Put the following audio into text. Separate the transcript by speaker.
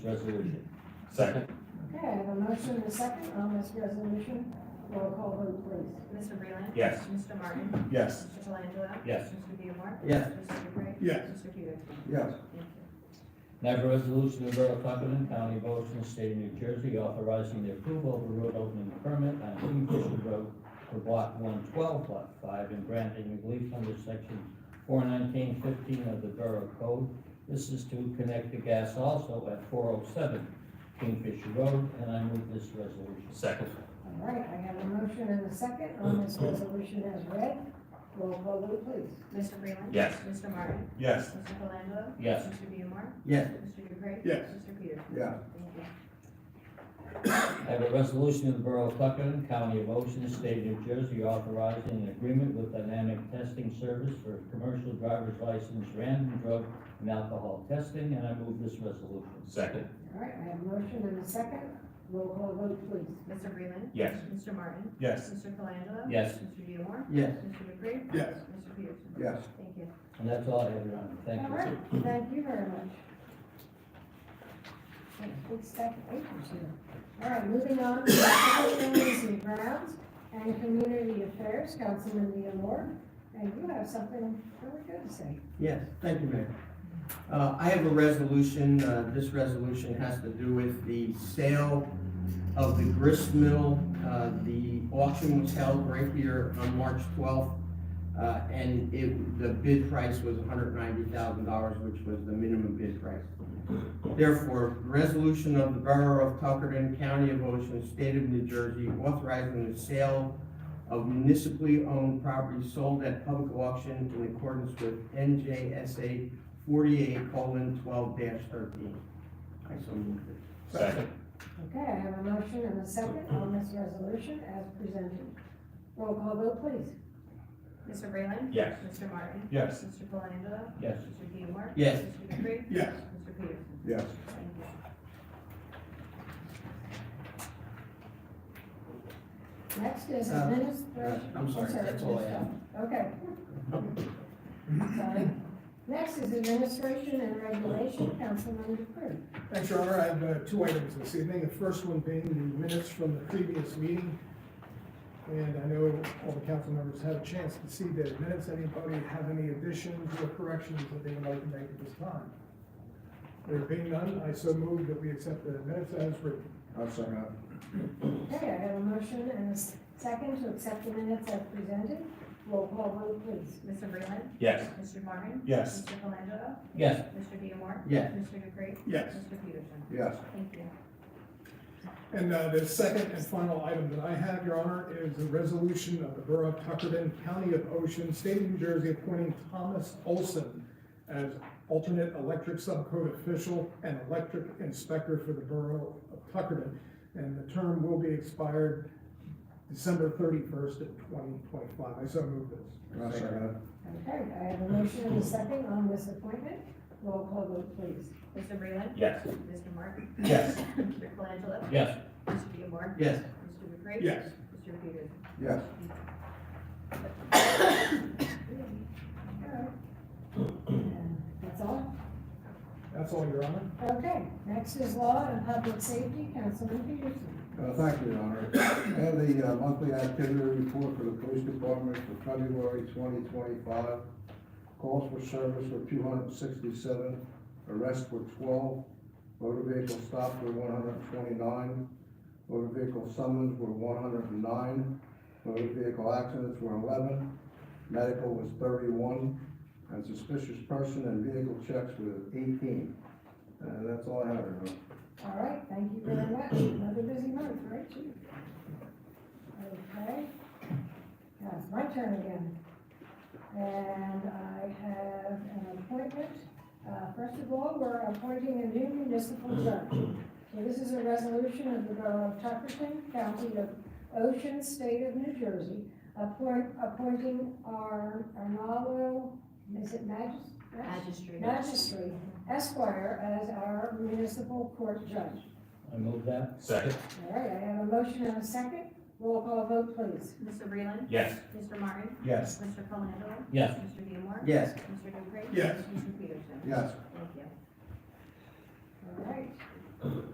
Speaker 1: resolution. Second?
Speaker 2: Okay, I have a motion and a second on this resolution. Roll call vote, please.
Speaker 3: Mr. Breland.
Speaker 1: Yes.
Speaker 3: Mr. Martin.
Speaker 1: Yes.
Speaker 3: Mr. Colangelo.
Speaker 1: Yes.
Speaker 3: Mr. Diemar.
Speaker 4: Yes.
Speaker 3: Mr. Dupre.
Speaker 1: Yes.
Speaker 3: Mr. Peterson.
Speaker 4: Yes.
Speaker 3: Thank you.
Speaker 5: I have a resolution of the Borough of Tuckerton, County of Ocean, State of New Jersey, authorizing the approval of a road opening permit on Kingfisher Road for block one twelve, lot five, and granting relief under section four nineteen fifteen of the Borough Code. This is to connect the gas also at four oh seven Kingfisher Road, and I move this resolution.
Speaker 1: Second?
Speaker 2: All right, I have a motion and a second on this resolution as read. Roll call vote, please.
Speaker 3: Mr. Breland.
Speaker 1: Yes.
Speaker 3: Mr. Martin.
Speaker 1: Yes.
Speaker 3: Mr. Colangelo.
Speaker 5: Yes.
Speaker 3: Mr. Diemar.
Speaker 4: Yes.
Speaker 3: Mr. Dupre.
Speaker 1: Yes.
Speaker 3: Mr. Peterson.
Speaker 4: Yeah.
Speaker 3: Thank you.
Speaker 5: I have a resolution of the Borough of Tuckerton, County of Ocean, State of New Jersey, authorizing an agreement with Dynamic Testing Service for commercial driver's license, random drug and alcohol testing, and I move this resolution.
Speaker 1: Second?
Speaker 2: All right, I have a motion and a second. Roll call vote, please.
Speaker 3: Mr. Breland.
Speaker 1: Yes.
Speaker 3: Mr. Martin.
Speaker 1: Yes.
Speaker 3: Mr. Colangelo.
Speaker 5: Yes.
Speaker 3: Mr. Diemar.
Speaker 4: Yes.
Speaker 3: Mr. Dupre.
Speaker 1: Yes.
Speaker 3: Mr. Peterson.
Speaker 4: Yes.
Speaker 3: Thank you.
Speaker 5: And that's all I have, Your Honor. Thank
Speaker 2: All
Speaker 5: you.
Speaker 2: right, thank you very much. Got a Big stack of papers here. All right, moving on to facilities and grounds and community affairs, Councilman Diemar. And you have something really good to say.
Speaker 4: Yes, thank you, Mayor. Uh, I have a resolution, uh, this resolution has to do with the sale of the grist mill. Uh, the auction was held right here on March twelfth, uh, and it, the bid price was hundred ninety thousand dollars, which was the minimum bid price. Therefore, resolution of the Borough of Tuckerton, County of Ocean, State of New Jersey, authorizing the sale of municipally owned property sold at public auction in accordance with NJSA forty-eight twelve thirteen. I so moved it.
Speaker 1: Second?
Speaker 2: Okay, I have a motion and a second on this resolution as presented. Roll call vote, please.
Speaker 3: Mr. Breland.
Speaker 1: Yes.
Speaker 3: Mr. Martin.
Speaker 1: Yes.
Speaker 3: Mr. Colangelo.
Speaker 5: Yes.
Speaker 3: Mr. Diemar.
Speaker 4: Yes.
Speaker 3: Mr. Dupre.
Speaker 1: Yes.
Speaker 3: Mr. Peterson.
Speaker 4: Yes.
Speaker 3: Thank you.
Speaker 2: Next is
Speaker 4: Uh,
Speaker 2: administration.
Speaker 4: uh, I'm sorry, that's all I have.
Speaker 2: Okay. Sorry. Next is administration and regulation, Councilman Dupree.
Speaker 6: Thanks, Your Honor. I have uh, two items this evening. The first one being the minutes from the previous meeting. And I know all the council members had a chance to see the minutes. Anybody have any additions or corrections that they would like to make at this time? There being none, I so move that we accept the minutes as written.
Speaker 4: I'm sorry.
Speaker 2: Okay, I have a motion and a s- second to accept the minutes as presented. Roll call vote, please.
Speaker 3: Mr. Breland.
Speaker 1: Yes.
Speaker 3: Mr. Martin.
Speaker 1: Yes.
Speaker 3: Mr. Colangelo.
Speaker 5: Yes,
Speaker 3: Mr. Diemar.
Speaker 4: Yes.
Speaker 3: Mr. Dupre.
Speaker 6: Yes.
Speaker 3: Mr. Peterson.
Speaker 4: Yes.
Speaker 3: Thank you.
Speaker 6: And uh, the second and final item that I have, Your Honor, is a resolution of the Borough of Tuckerton, County of Ocean, State of New Jersey, appointing Thomas Olson as alternate electric subcode official and electric inspector for the Borough of Tuckerton. And the term will be expired December thirty-first of twenty twenty-five. I so move this.
Speaker 4: I'm sorry.
Speaker 2: Okay, I have a motion and a second on this appointment. Roll call vote, please.
Speaker 3: Mr. Breland.
Speaker 1: Yes.
Speaker 3: Mr. Martin.
Speaker 1: Yes.
Speaker 3: Mr. Colangelo.
Speaker 5: yes.
Speaker 3: Mr. Diemar.
Speaker 4: Yes.
Speaker 3: Mr. Dupre.
Speaker 6: Yes.
Speaker 3: Mr. Peterson.
Speaker 4: Yes.
Speaker 2: All right. That's all?
Speaker 6: That's all, Your Honor.
Speaker 2: Okay, next is law and public safety, Councilman Peterson.
Speaker 7: Uh, Thank you, Your Honor. I have the uh, monthly activity report for the police department for February twenty twenty-five. Calls for service were two hundred and sixty-seven, arrests were twelve, motor vehicle stops were one hundred and twenty-nine, motor vehicle summons were one hundred and nine, motor vehicle accidents were eleven, medical was thirty-one, and suspicious person and vehicle checks were eighteen. And that's all I have, Your Honor.
Speaker 2: All right, thank you very much. Another busy month, right, Chief? Okay. Now it's my turn again. And I have an appointment. Uh, First of all, we're appointing a new municipal judge. So this is a resolution of the Borough of Tuckerton, County of Ocean, State of New Jersey, appoint, appointing our Arnaldo, is it Magis?
Speaker 3: Magistrate.
Speaker 2: Magistrate Esquire as our municipal court judge.
Speaker 5: I move that.
Speaker 1: Second?
Speaker 2: All right, I have a motion and a second. Roll call vote, please.
Speaker 3: Mr. Breland.
Speaker 1: Yes.
Speaker 3: Mr. Martin.
Speaker 1: Yes.
Speaker 3: Mr. Colangelo.
Speaker 5: Yes.
Speaker 3: Mr. Diemar.
Speaker 4: Yes.
Speaker 3: Mr. Dupre.
Speaker 6: Yes.
Speaker 3: Mr. Peterson.
Speaker 7: Yes.
Speaker 3: Thank you.
Speaker 2: All right,